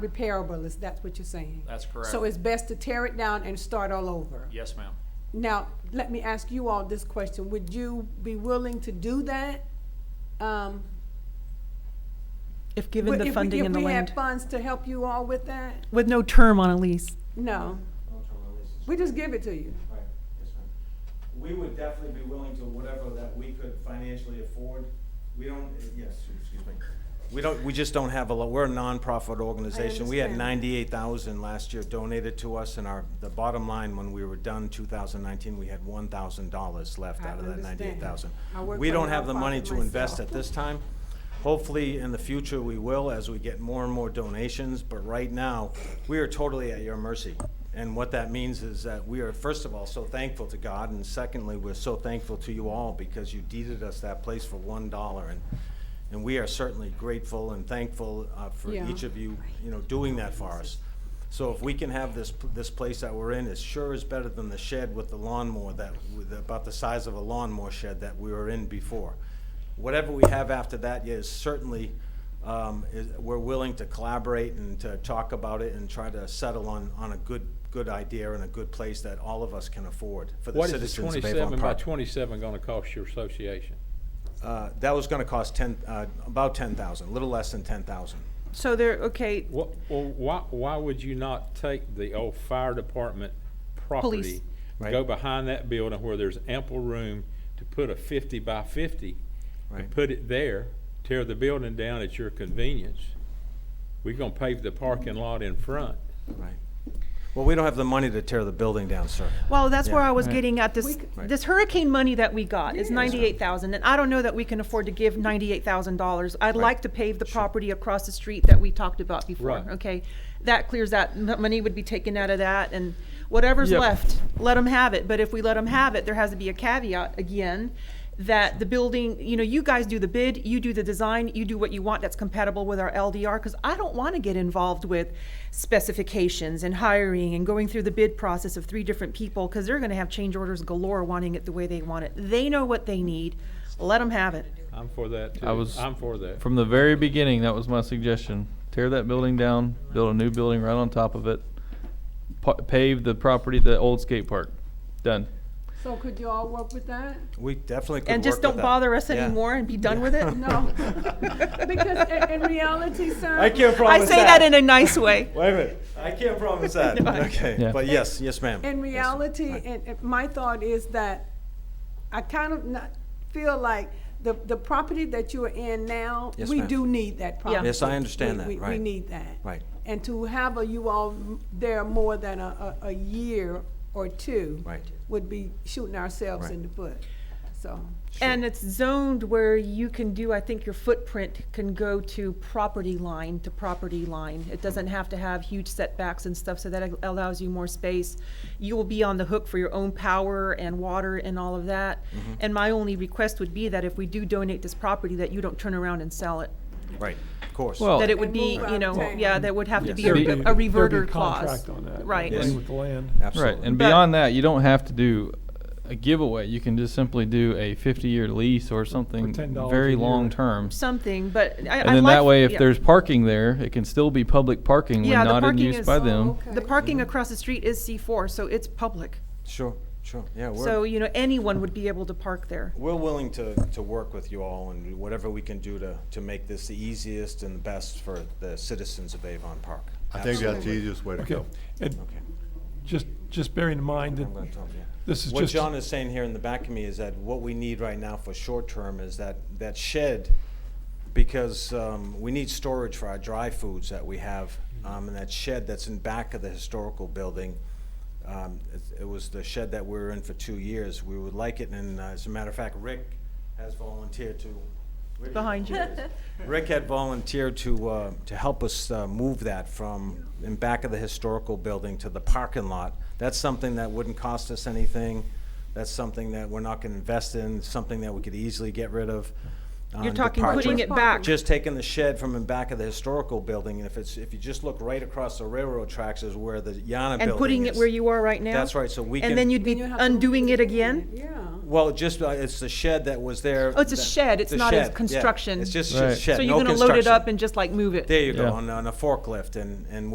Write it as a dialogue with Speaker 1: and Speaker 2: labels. Speaker 1: repairable, is that's what you're saying?
Speaker 2: That's correct.
Speaker 1: So it's best to tear it down and start all over?
Speaker 2: Yes, ma'am.
Speaker 1: Now, let me ask you all this question. Would you be willing to do that? Um,
Speaker 3: If given
Speaker 1: if
Speaker 3: the
Speaker 1: we-
Speaker 3: funding and the
Speaker 1: If we had
Speaker 3: land,
Speaker 1: funds to help you all with that?
Speaker 3: with no term on a lease.
Speaker 1: No,
Speaker 4: Don't turn my leases.
Speaker 1: we just give it to you.
Speaker 4: Right, yes, ma'am. We would definitely be willing to whatever that we could financially afford. We don't, yes, excuse me. We don't, we just don't have a lot, we're a nonprofit organization. We had
Speaker 1: understand.
Speaker 4: ninety-eight thousand last year donated to us and our, the bottom line, when we were done two thousand nineteen, we had one thousand dollars left
Speaker 1: I
Speaker 4: out of that
Speaker 1: understand.
Speaker 4: ninety-eight thousand.
Speaker 1: I work
Speaker 4: We
Speaker 1: for a
Speaker 4: don't have the money
Speaker 1: nonprofit
Speaker 4: to invest
Speaker 1: myself.
Speaker 4: at this time. Hopefully, in the future, we will as we get more and more donations, but right now, we are totally at your mercy. And what that means is that we are, first of all, so thankful to God, and secondly, we're so thankful to you all because you deeded us that place for one dollar. And, and we are certainly grateful and thankful uh, for
Speaker 1: Yeah.
Speaker 4: each of you, you know, doing that for us. So if we can have this, p- this place that we're in, it sure is better than the shed with the lawnmower that, with about the size of a lawnmower shed that we were in before. Whatever we have after that is certainly, um, is, we're willing to collaborate and to talk about it and try to settle on, on a good, good idea and a good place that all of us can afford for the
Speaker 5: What is the
Speaker 4: citizens of Avon
Speaker 5: twenty-seven by
Speaker 4: Park.
Speaker 5: twenty-seven gonna cost your association?
Speaker 4: Uh, that was gonna cost ten, uh, about ten thousand, a little less than ten thousand.
Speaker 3: So there, okay,
Speaker 5: What, well, why, why would you not take the old fire department property?
Speaker 4: Right.
Speaker 5: Go behind that building where there's ample room to put a fifty by fifty?
Speaker 4: Right.
Speaker 5: And put it there, tear the building down at your convenience. We're gonna pave the parking lot in front.
Speaker 4: Right. Well, we don't have the money to tear the building down, sir.
Speaker 3: well, that's where
Speaker 4: Yeah.
Speaker 3: I was getting at, this,
Speaker 1: could-
Speaker 4: Right.
Speaker 3: this hurricane money that we got is
Speaker 1: Yes.
Speaker 3: ninety-eight thousand, and I don't know that we can afford to give ninety-eight thousand dollars. I'd like to pave the property across the street that we talked about before,
Speaker 5: Right.
Speaker 3: okay? That clears that, m- money would be taken out of that, and whatever's
Speaker 5: Yeah.
Speaker 3: left, let them have it, but if we let them have it, there has to be a caveat again, that the building, you know, you guys do the bid, you do the design, you do what you want that's compatible with our LDR, because I don't want to get involved with specifications and hiring and going through the bid process of three different people, because they're going to have change orders galore wanting it the way they want it. They know what they need, let them have it.
Speaker 5: I'm for that too.
Speaker 6: I was-
Speaker 5: I'm for that.
Speaker 6: From the very beginning, that was my suggestion. Tear that building down, build a new building right on top of it, pa- pave the property, the old skate park. Done.
Speaker 1: So could you all work with that?
Speaker 4: We definitely could
Speaker 3: And just
Speaker 4: work with
Speaker 3: don't
Speaker 4: that.
Speaker 3: bother us
Speaker 4: Yeah.
Speaker 3: anymore and be done with it?
Speaker 1: No, because in, in reality, sir.
Speaker 4: I can't
Speaker 3: I
Speaker 4: promise
Speaker 3: say that in a nice way.
Speaker 4: Wait a minute. I can't promise that. Okay,
Speaker 6: Yeah.
Speaker 4: but yes, yes, ma'am.
Speaker 1: In reality, and, and my thought is that I kind of not feel like the, the property that you are in now,
Speaker 4: Yes,
Speaker 1: we
Speaker 4: ma'am.
Speaker 1: do need that property.
Speaker 4: Yes, I understand
Speaker 1: We-
Speaker 4: that,
Speaker 1: we- We
Speaker 4: right.
Speaker 1: need that.
Speaker 4: Right.
Speaker 1: And to have a- you all m- there more than a, a, a year or two.
Speaker 4: Right.
Speaker 1: Would be shooting ourselves
Speaker 4: Right.
Speaker 1: in the foot, so.
Speaker 3: And it's zoned where you can do, I think your footprint can go to property line to property line. It doesn't have to have huge setbacks and stuff, so that allows you more space. You will be on the hook for your own power and water and all of that.
Speaker 6: Mm-hmm.
Speaker 3: And my only request would be that if we do donate this property, that you don't turn around and sell it.
Speaker 4: Right, of course.
Speaker 6: Well-
Speaker 3: That it would be,
Speaker 1: And move
Speaker 3: you
Speaker 1: out
Speaker 3: know,
Speaker 1: of
Speaker 3: yeah,
Speaker 1: town.
Speaker 3: that would have to
Speaker 4: Yes.
Speaker 3: be
Speaker 6: There'd
Speaker 3: a-
Speaker 6: be-
Speaker 3: a reverter
Speaker 7: There'd be a
Speaker 3: clause.
Speaker 7: contract on that.
Speaker 3: Right.
Speaker 4: Yes.
Speaker 7: Agree with the land.
Speaker 6: Right,
Speaker 4: Absolutely.
Speaker 6: and
Speaker 3: But-
Speaker 6: beyond that, you don't have to do a giveaway. You can just simply do a fifty-year lease or something
Speaker 7: $10 a
Speaker 6: very
Speaker 7: year.
Speaker 6: long-term.
Speaker 3: Something, but I, I like.
Speaker 6: And then that way, if
Speaker 3: yeah.
Speaker 6: there's parking there, it can still be public parking
Speaker 3: Yeah,
Speaker 6: when
Speaker 3: the
Speaker 6: not in
Speaker 3: parking
Speaker 6: use
Speaker 3: is-
Speaker 6: by
Speaker 3: Oh,
Speaker 6: them.
Speaker 1: okay.
Speaker 3: The parking across the street is C four, so it's public.
Speaker 4: Sure, sure, yeah,
Speaker 3: So,
Speaker 4: we're,
Speaker 3: you know, anyone would be able to park there.
Speaker 4: we're willing to, to work with you all and whatever we can do to, to make this the easiest and the best for the citizens of Avon Park.
Speaker 8: I think that's the easiest way to
Speaker 7: Okay,
Speaker 8: go.
Speaker 7: and
Speaker 4: Okay.
Speaker 7: just, just bearing in mind
Speaker 4: I'm gonna
Speaker 7: that
Speaker 4: tell 'em, yeah.
Speaker 7: this is
Speaker 4: What
Speaker 7: just,
Speaker 4: John is saying here in the back of me is that what we need right now for short term is that, that shed, because um, we need storage for our dry foods that we have,
Speaker 7: Mm-hmm.
Speaker 4: um, and that shed that's in back of the historical building. um, it- It was the shed that we were in for two years. We would like it, and uh, as a matter of fact, Rick has volunteered to. Rick-
Speaker 3: Behind you.
Speaker 4: Rick had volunteered to, uh, to help us uh, move that from in back of the historical building to the parking lot. That's something that wouldn't cost us anything. That's something that we're not gonna invest in, something that we could easily get rid of. on
Speaker 3: You're
Speaker 4: the
Speaker 3: talking
Speaker 4: park.
Speaker 3: putting
Speaker 1: Just
Speaker 3: it back.
Speaker 4: Just taking the shed from in back of the historical building, and if it's, if you just look right across the railroad tracks is where the Yana building is.
Speaker 3: And putting it where you are right now?
Speaker 4: That's right, so we
Speaker 3: And
Speaker 4: can-
Speaker 3: then you'd be
Speaker 1: Then you have to
Speaker 3: undoing
Speaker 1: move
Speaker 3: it again?
Speaker 1: Yeah.
Speaker 4: Well, just, uh, it's the shed that was there.
Speaker 3: Oh, it's a
Speaker 4: that-
Speaker 3: shed, it's
Speaker 4: the
Speaker 3: not a
Speaker 4: shed, yeah.
Speaker 3: construction.
Speaker 4: It's just
Speaker 6: Right.
Speaker 4: a shed,
Speaker 3: So you're
Speaker 4: no
Speaker 3: gonna load it
Speaker 4: construction.
Speaker 3: up and just like move it?
Speaker 4: There you go,
Speaker 6: Yeah.
Speaker 4: on, on a forklift and, and